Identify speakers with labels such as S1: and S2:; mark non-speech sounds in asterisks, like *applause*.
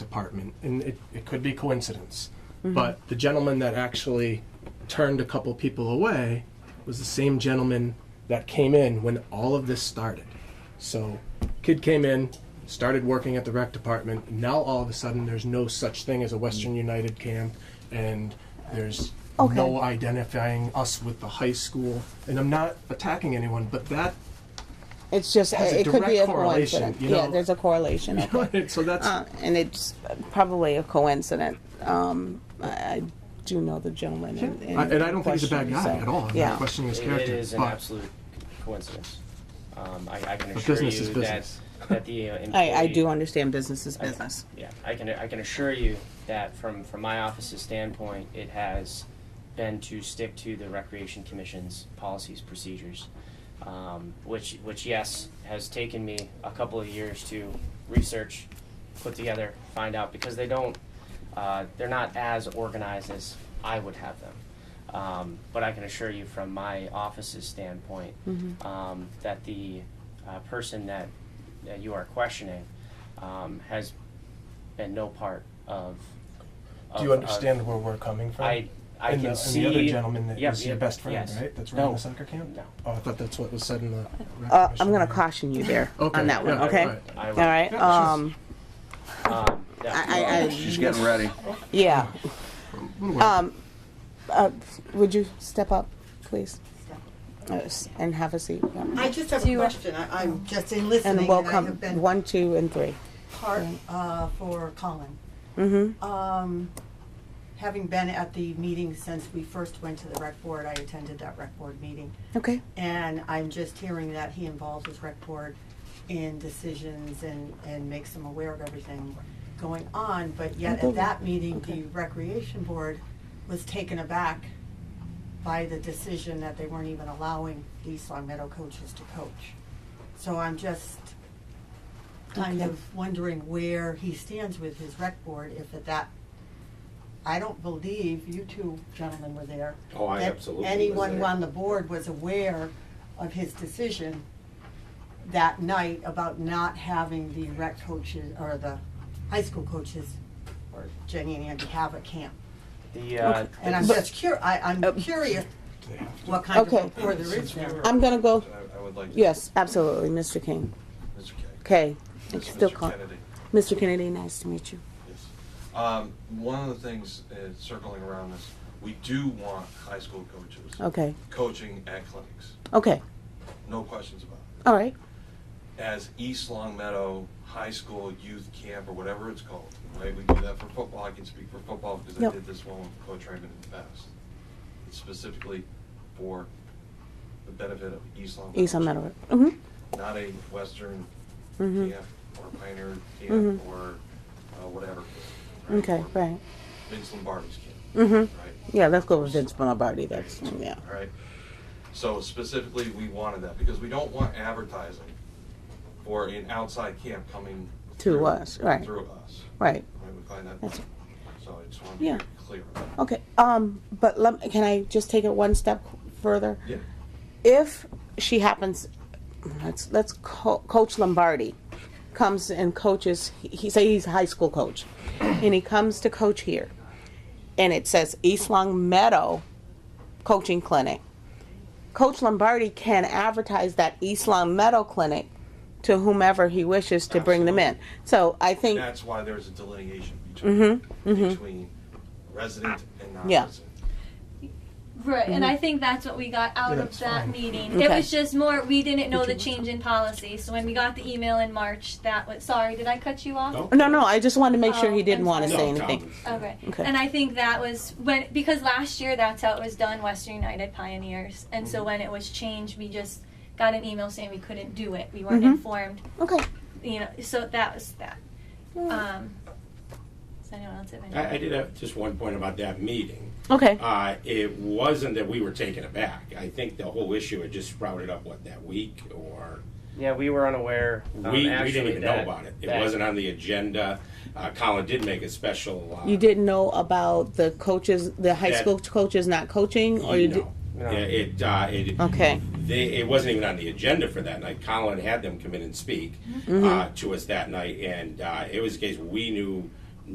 S1: department, and it, it could be coincidence,
S2: Mm-hmm.
S1: but the gentleman that actually turned a couple people away was the same gentleman that came in when all of this started. So, kid came in, started working at the rec department. Now all of a sudden, there's no such thing as a Western United camp, and there's
S2: Okay.
S1: no identifying us with the high school. And I'm not attacking anyone, but that *laughs*
S2: It's just,
S1: has a
S2: it could be
S1: direct
S2: a
S1: correlation,
S2: coincidence.
S1: you
S2: Yeah,
S1: know?
S2: there's a correlation. okay.
S1: so that's
S2: Uh, And it's probably a coincidence. Um, I I do know the gentleman in- in
S1: I- and I don't think he's a bad
S2: question,
S1: guy
S2: so,
S1: at all. I'm
S2: Yeah.
S1: not questioning his
S3: It-
S1: character,
S3: It is an
S1: but
S3: absolute coincidence. Um, I, I can
S1: But
S3: assure
S1: business is
S3: you that,
S1: business.
S3: that the uh,
S2: *laughs* I,
S3: employee.
S2: I do understand business is business.
S3: Yeah, I can, I can assure you that from, from my office's standpoint, it has been to stick to the Recreation Commission's policies, procedures, um, which, which, yes, has taken me a couple of years to research, put together, find out, because they don't, uh, they're not as organized as I would have them. Um, but I can assure you from my office's standpoint,
S4: Mm-hmm.
S3: um, that the, uh, person that, that you are questioning, um, has been no part of.
S1: do you
S3: of- of-
S1: understand where we're coming from?
S3: I, I
S1: and
S3: can
S1: the,
S3: see.
S1: and the other gentleman that
S3: Yep,
S1: was your
S3: yep,
S1: best friend,
S3: yes.
S1: right? That's running
S3: no,
S1: the soccer camp.
S3: No.
S1: Oh, I thought that's what was said in the.
S2: Uh, I'm gonna caution you there
S1: Okay,
S2: on that one,
S1: yeah,
S2: okay?
S1: right.
S3: I
S2: All
S3: would-
S2: right,
S1: Yeah,
S2: um,
S3: Um, that-
S2: I, I, I,
S5: She's getting ready.
S2: yeah.
S1: Little
S2: Um, uh, would you step up, please? Uh, s- And have a seat. yeah.
S4: I just have
S6: Do
S4: a
S6: you-
S4: question. I, I'm just in listening.
S2: And
S4: I
S2: welcome,
S4: have been
S2: one, two, and three.
S4: part uh, for Colin.
S2: Mm-hmm.
S4: Um, having been at the meeting since we first went to the rec board, I attended that rec board meeting,
S2: Okay,
S4: and I'm just hearing that he involves his rec board in decisions and and makes them aware of everything going on. But yet at that meeting, the recreation board was taken aback by the decision that they weren't even allowing these Long Meadow coaches to coach. So I'm just kind
S2: Okay.
S4: of wondering where he stands with his rec board, if at that, I don't believe you two gentlemen were there.
S7: Oh, I
S4: that
S7: absolutely was
S4: Anyone
S7: there.
S4: on the board was aware of his decision that night about not having the rec coaches, or the high school coaches, or Jenny and Andy have a camp.
S3: The, uh,
S4: And I'm
S3: the-
S4: just cur, I, I'm curious what kind of
S2: um, Okay.
S4: rapport there is there.
S2: I'm gonna go,
S7: I- I would like to-
S2: yes, absolutely, Mr. King.
S7: Mr. Keg.
S2: Okay,
S7: This
S2: it's
S7: is
S2: still
S7: Mr.
S2: Colin.
S7: Kennedy.
S2: Mr. Kennedy, nice to meet you.
S7: Yes. Um, One of the things, uh, circling around this, we do want high school coaches
S2: Okay,
S7: coaching at clinics,
S2: okay,
S7: no questions about it.
S2: all right,
S7: As East Long Meadow High School Youth Camp, or whatever it's called, right? We do that for football, I can speak for football because I
S2: Yep.
S7: did this one with Coach Raymond in the past. It's specifically for the benefit of East Long Meadow.
S2: East on Meadow. Mm-hmm,
S7: Not a Western
S2: Mhm.
S7: camp or Pioneer camp
S2: Mhm.
S7: or uh, whatever.
S2: okay,
S7: Or
S2: right.
S7: Vince Lombardi's camp.
S2: Mm-hmm,
S7: Right.
S2: yeah, let's go with Vince Lombardi, that's, yeah.
S7: All right. So specifically, we wanted that because we don't want advertising for an outside camp coming
S2: To
S7: through-
S2: us, right.
S7: Through us.
S2: Right,
S7: Right. We find that.
S2: That's-
S7: So I just want to
S2: Yeah.
S7: be clear. on that.
S2: okay, um, but let, can I just take it one step further?
S7: Yeah.
S2: if she happens, let's let's co- coach Lombardi comes and coaches. He, he say he's a high school coach, and he comes to coach here, and it says East Long Meadow Coaching Clinic. Coach Lombardi can advertise that East Long Meadow Clinic to whomever he wishes to bring them in. So I think
S7: That's why there's a delineation between
S2: Mm-hmm.
S7: between resident and non-resident.
S6: Right, and I think that's what we got out
S1: Yeah,
S6: of
S1: it's
S6: that
S1: fine.
S6: meeting. It
S2: Okay.
S6: was just more we didn't know the change in policy. So when we got the email in March, that was sorry, did I cut you off?
S2: no, no. I just wanted to make sure
S6: Oh,
S2: he didn't
S6: I'm
S2: want to
S6: sorry.
S2: say anything.
S6: Okay.
S2: Okay.
S6: And I think that was when because last year that's how it was done, Western United Pioneers. And so when it was changed, we just got an email saying we couldn't do it. We weren't
S2: Mhm.
S6: informed.
S2: Okay.
S6: You know, so that was that. Um, does anyone else have any?
S8: I, I did have just one point about that meeting.
S2: Okay.
S8: Uh, it wasn't that we were taken aback. I think the whole issue had just sprouted up, what, that week or?
S3: yeah, we were unaware.
S8: We,
S3: um,
S8: we
S3: actually
S8: didn't even know
S3: that-
S8: about it. It
S3: that-
S8: wasn't on the agenda. Uh, Colin did make a special. Uh,
S2: You didn't know about the coaches, the high
S8: That-
S2: school coaches not coaching, or you did.
S8: know. Yeah, it, uh, it,
S2: Okay.
S8: They, it wasn't even on the agenda for that night.
S2: Mm-hmm.
S8: Colin had them come in and speak uh, to us that night, and uh, it was a case we knew